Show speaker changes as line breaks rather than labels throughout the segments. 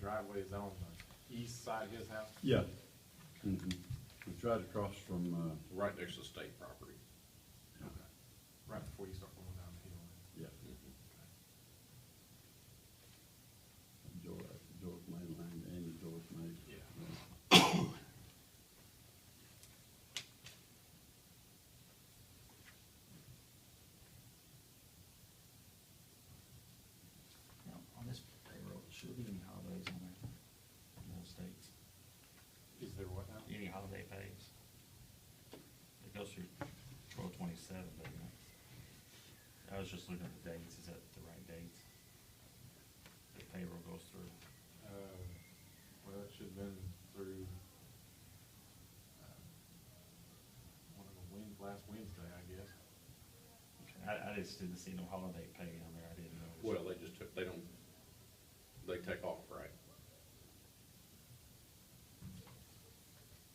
driveway is on the east side of his house?
Yeah. Mhm. It's right across from, uh,
Right next to state property.
Right before you start going down the hill.
yeah, George, George Main Line, Andy George Main.
Yeah.
Now, on this payroll, should there be any holidays on there? No states.
Is there what now?
Any holiday pays? It goes through twelve twenty-seven, doesn't it? I was just looking at the dates, is that the right dates? The payroll goes through.
Uh, well, it should've been through, uh, one of the wind, last Wednesday, I guess.
I, I just didn't see no holiday pay on there, I didn't know.
Well, they just took, they don't, they take off, right?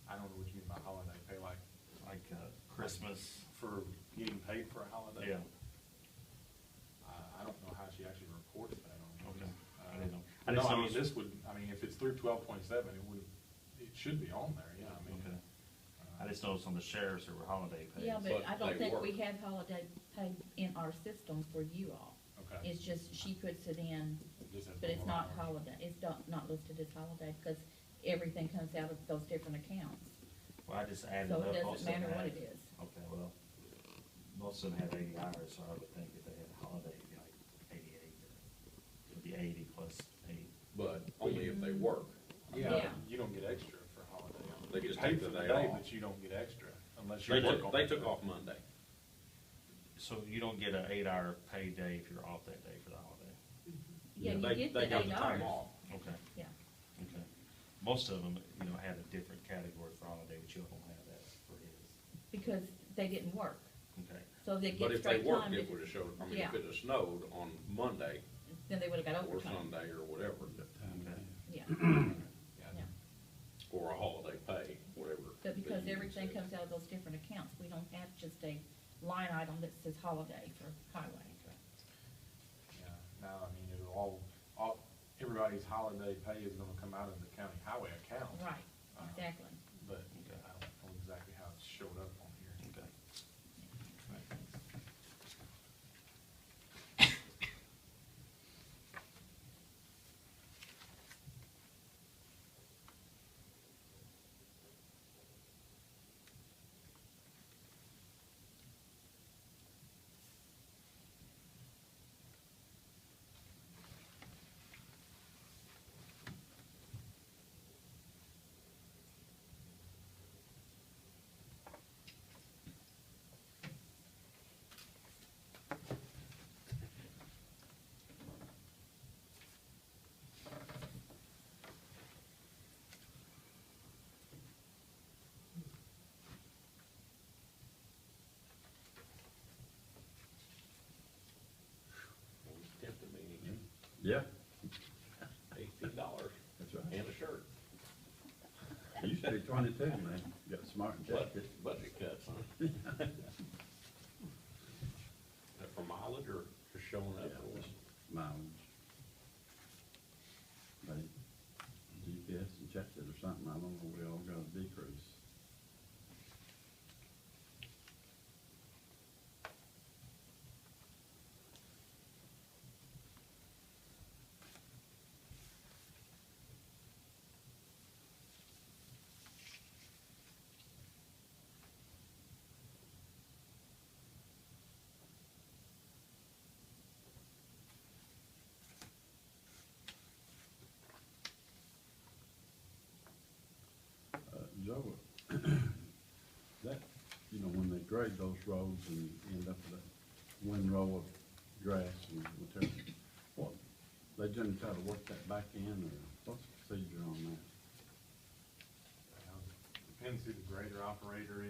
I don't know what you mean by holiday pay, like
Like, uh, Christmas,
for getting paid for a holiday?
yeah,
I, I don't know how she actually reported that on.
okay.
this.
I didn't know.
Uh, No,
didn't
I
see
mean,
it was-
this would, I mean, if it's through twelve point seven, it would, it should be on there, yeah, I mean.
Okay.
uh,
I just noticed on the sheriffs there were holiday pays.
Yeah, but
But
I don't
they
think
work.
we have holiday pay in our system for you all.
Okay.
It's just she puts it in,
Just has
but it's
normal
not
hours.
holiday, it's not, not listed as holiday because everything comes out of those different accounts.
Well, I just added
So
up.
it
most
doesn't
of them
matter what
had-
it is.
Okay, well, most of them had eighty hours, so I would think if they had a holiday, it'd be like eighty-eight, or it'd be eighty plus eight.
But only if they work.
Yeah,
Yeah.
you don't get extra for holiday.
They
You
just
pay
take
for the
the day
day,
off.
but you don't get extra unless you
They
work on
took, they
that
took
day.
off Monday.
So you don't get an eight-hour payday if you're off that day for the holiday?
Yeah,
They-
you get
they
the
got
eight
time
hours.
off.
Okay,
Yeah,
okay. Most of them, you know, had a different category for holiday, but you don't have that for his.
because they didn't work,
Okay,
so they
But
get
if they
straight
worked,
time,
it would've showed, I mean,
Yeah.
if it had snowed on Monday
then they would've got
or
overtime,
Sunday or whatever,
Time
Okay.
there.
yeah, yeah.
or a holiday pay, whatever.
But because
that you
everything
said.
comes out of those different accounts, we don't have just a line item that says holiday for highway.
okay.
Yeah. No, I mean, it'll all, all, everybody's holiday pay is gonna come out of the county highway account.
Right,
Uh,
exactly.
But
Okay.
I don't know exactly how it showed up on here.
Okay.
Well, it's tempting me to get
Yeah,
eighteen dollars
that's right.
and a shirt,
It used to be twenty-two, man. Got smart and
budget,
jacket.
budget cuts, huh? That for mileage or just showing up?
Yeah, just mileage. They GPS and checked it or something, I don't know, we all got a decrease. Uh, Joe, that, you know, when they grade those roads and you end up with that one row of grass and whatever, what, they generally try to work that back in, or what's the procedure on that?
Depends who the grader operator